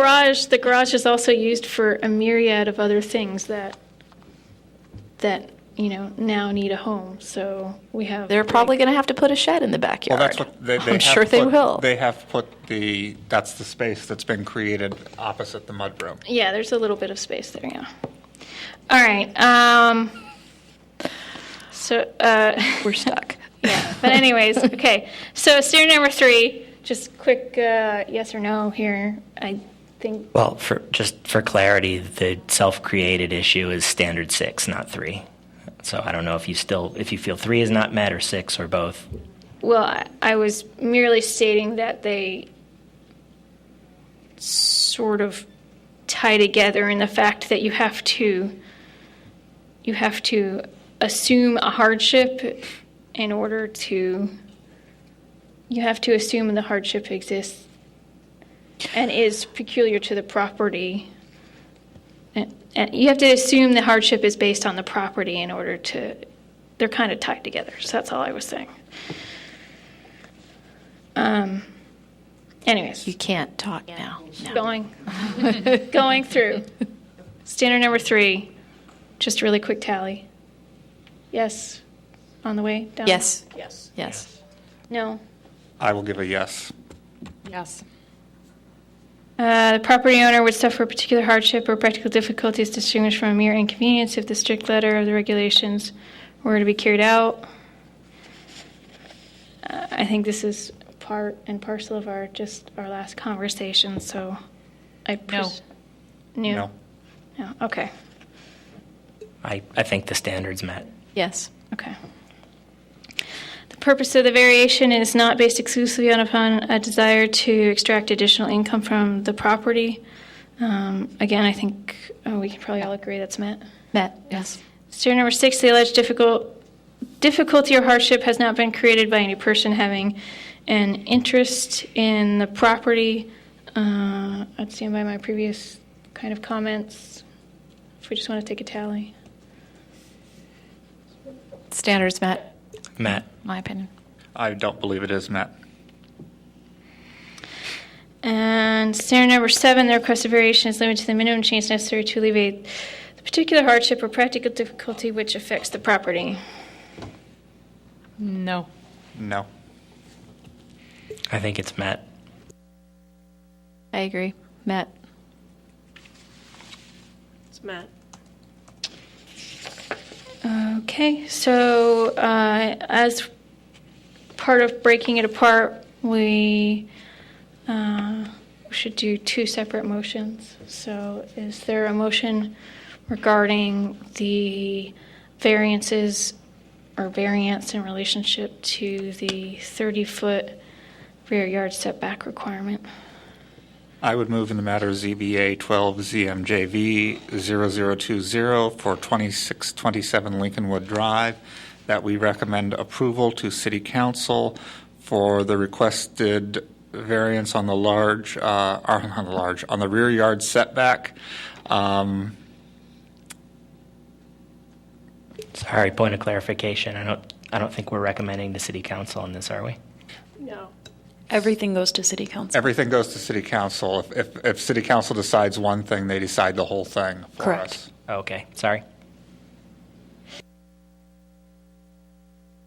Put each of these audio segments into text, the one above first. Garage, the garage is also used for a myriad of other things that, that, you know, now need a home, so we have. They're probably going to have to put a shed in the backyard. Well, that's what they, they I'm have sure they put- will. They have put the, that's the space that's been created opposite the mudroom. Yeah, there's a little bit of space there, yeah. All right, um, so, uh. We're stuck. Yeah, but anyways, okay. So steer number three, just quick uh, yes or no here. I think Well, for, just for clarity, the self-created issue is standard six, not three. So I don't know if you still, if you feel three is not met or six or both. Well, I- I was merely stating that they sort of tie together in the fact that you have to you have to assume a hardship in order to you have to assume the hardship exists and is peculiar to the property. And, and you have to assume the hardship is based on the property in order to they're kind of tied together. So that's all I was saying. Um, You anyways, can't talk now. going, going through. Standard number three, just really quick tally. Yes, on the way down? Yes. Yes. Yes. No. I will give a yes. Yes. Uh, The property owner would suffer a particular hardship or practical difficulties distinguished from a mere inconvenience if the strict letter of the regulations were to be carried out. Uh, I think this is part and parcel of our, just our last conversation, so I. pres- New? No. No, okay, I, I think the standard's met. Yes. okay. The purpose of the variation is not based exclusively on upon a desire to extract additional income from the property. Um, Again, I think uh, we can probably all agree that's met. Met. Yes. Stair number six, the alleged difficult, difficulty or hardship has not been created by any person having an interest in the property. Uh, I'd stand by my previous kind of comments, if we just want to take a tally. Standards met. Met. My opinion. I don't believe it is met. And scenario number seven, the requested variation is limited to the minimum change necessary to alleviate the particular hardship or practical difficulty which affects the property. No. No. I think it's met. I agree. Met. It's Matt. Okay, so uh, as part of breaking it apart, we uh, should do two separate motions. So is there a motion regarding the variances or variance in relationship to the 30-foot rear yard setback requirement? I would move in the matter ZBA 12 ZMJV 0020 for 2627 Lincolnwood Drive, that we recommend approval to City Council for the requested variance on the large, uh, or on the large, on the rear yard setback. Um, Sorry, point of clarification. I don't, I don't think we're recommending the city council on this, are we? No. Everything goes to city council. Everything goes to City Council. If- If, if City Council decides one thing, they decide the whole thing for Correct. us. Okay, sorry.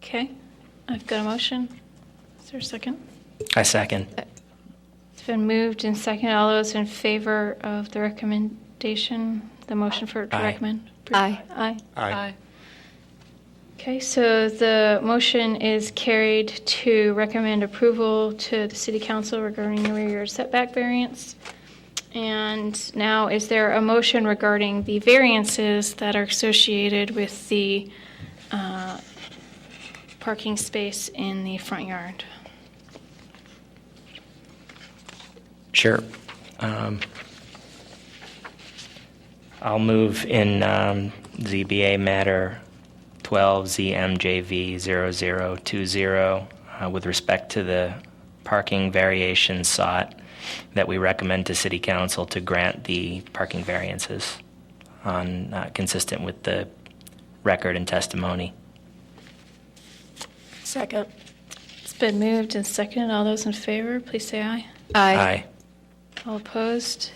Okay, I've got a motion. Is there a second? I second. It's been moved and seconded. All those in favor of the recommendation, the motion for to Aye. recommend? Aye. Aye. Aye. Okay, so the motion is carried to recommend approval to the city council regarding the rear yard setback variance. And now, is there a motion regarding the variances that are associated with the uh, parking space in the front yard? Sure. Um, I'll move in um, ZBA matter 12ZMJV0020 uh, with respect to the parking variation sought that we recommend to City Council to grant the parking variances on uh, consistent with the record and testimony. Second. It's been moved and seconded. All those in favor, please say aye. Aye. Aye. All opposed?